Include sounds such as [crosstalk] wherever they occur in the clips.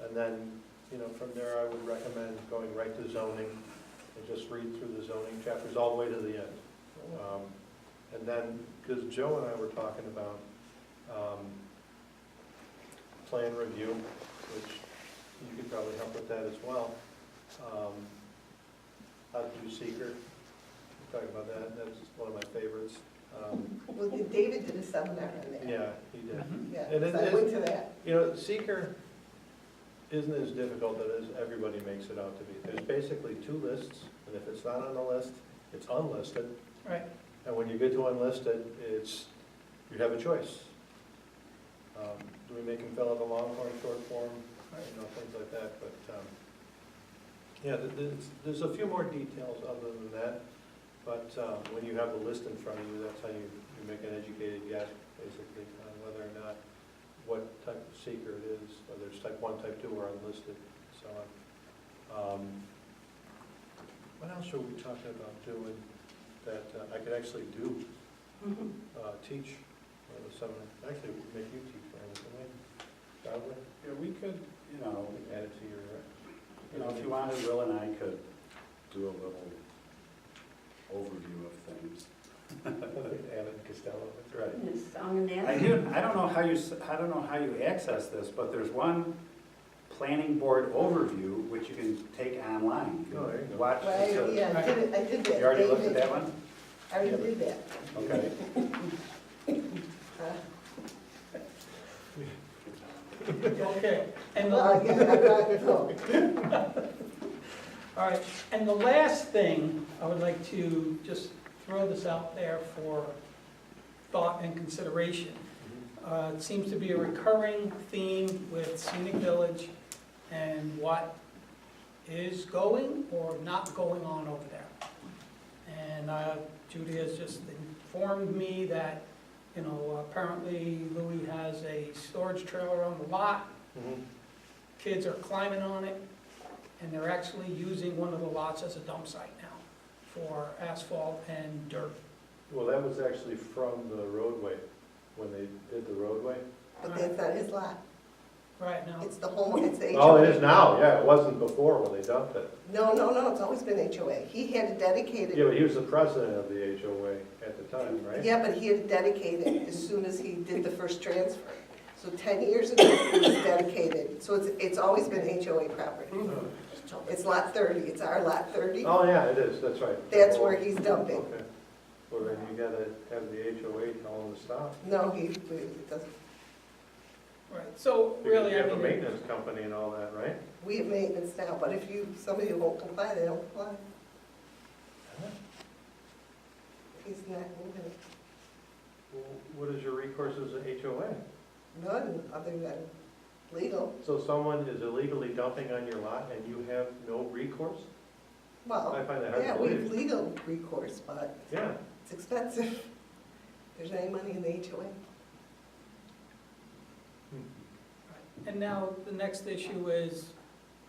And then, you know, from there, I would recommend going right to zoning and just read through the zoning chapters all the way to the end. Um, And then, because Joe and I were talking about um, plan review, which you could probably help with that as well. Um, How to do seeker, talking about that, that's one of my favorites. Um, Well, David did a seminar on that. Yeah, he did. Yeah, And it so I is- went to that. You know, seeker isn't as difficult as everybody makes it out to be. There's basically two lists, and if it's not on the list, it's unlisted. Right. And when you get to unlisted, it's, you have a choice. Um, Do we make him fill out the long form, short form, you know, things like that, but, um, yeah, th- there's, there's a few more details other than that, but um, when you have the list in front of you, that's how you, you make an educated guess, basically, on whether or not, what type of seeker it is, whether it's type one, type two, or unlisted, so on. Um, What else are we talking about doing that uh, I could actually do? uh, teach uh, the seminar, actually we could make you teach, Brandon, couldn't we? Probably, Yeah, we could, you know, add it to your, uh, you know, if [laughs] you wanted, Will and I could do a little overview of things. Alan Costello. Right. It's on an I ad. do, I don't know how you, s- I don't know how you access this, but there's one planning board overview, which you can take online. You can Oh, there you go. Watch, it's Well, I- a- yeah, I did it, I did that. you already looked at David- that one? I already did that. [laughs] Okay. Uh, Okay, and the, Well, I all guess I'm not, no. right, and the last thing, I would like to just throw this out there for thought and consideration. Mm-hmm. Uh, It seems to be a recurring theme with scenic village and what is going or not going on over there. And uh, Judy has just informed me that, you know, apparently Louis has a storage trailer on the lot. Mm-hmm. Kids are climbing on it, and they're actually using one of the lots as a dump site now for asphalt and dirt. Well, that was actually from the roadway, when they did the roadway. But that's not his lot. Right now, It's the home, it's the Oh, HOA. it is now, yeah, it wasn't before when they dumped it. No, no, no, it's always been HOA. He had a Yeah, dedicated, but he was the president of the HOA at the time, right? yeah, but he had dedicated as soon as he did the first transfer. So 10 years ago, it was dedicated. So it's, it's always been HOA property. Oh, It's lot 30, it's our lot 30. Oh, yeah, it is, that's right. That's where he's dumping. Okay. Well, then you gotta have the HOA tell him to stop. No, he, it doesn't. right, so Because really, you I have a mean. maintenance company and all that, right? We have maintenance now, but if you, somebody won't comply, they don't comply. He's not moving it. Well, What is your recourse as a HOA? none other than legal. So someone is illegally dumping on your lot and you have no recourse? I Well, find that hard to yeah, we have believe. legal recourse, but Yeah, it's expensive. [laughs] There's any money in the HOA. And now, the next issue is,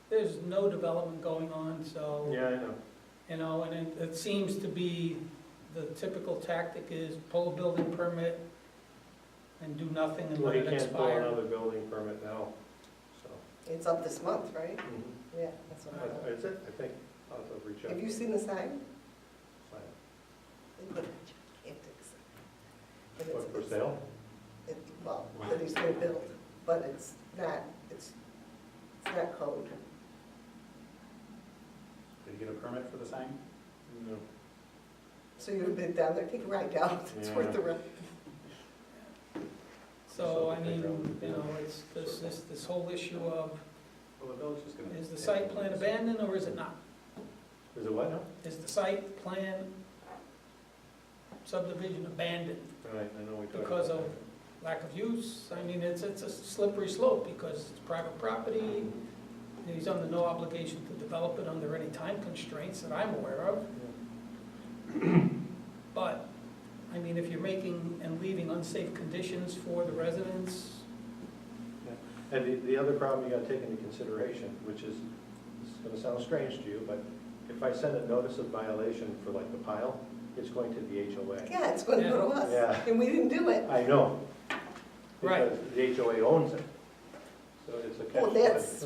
there's no development going on, so, yeah, I know. you know, and it, it seems to be, the typical tactic is pull a building permit and do nothing and Well, let he it can't pull expire. another building permit now, so. It's up this month, right? Mm-hmm. Mhm. Yeah, that's what I That- know. That's it, I think. I'll have to reach out. Have you seen the sign? Sign. They put a gigantic sign. And it's- What, for sale? it- Well, that he's gonna build, but it's not, it's, it's not code. Did you get a permit for the sign? No. So you've been down there, take a ride down, [laughs] it's worth the ride. So, I mean, you know, it's, there's this, this whole issue of, Well, the village is gonna. is the site plan abandoned or is it not? Is it what now? Is the site plan subdivision abandoned? All right, I know we talked. Because about of lack of use, I mean, it's, it's a slippery slope because it's private that. property, and he's under no obligation to develop it under any time constraints that I'm aware of. But, I mean, if you're making and leaving unsafe conditions for the residents, And the, the other problem you gotta take into consideration, which is, this is gonna sound strange to you, but if I send a notice of violation for like the pile, it's going to the HOA. Yeah, it's gonna go to Yeah. us, and we didn't do it. I know. Right. Because the HOA owns it. So it's a catch. Well, that's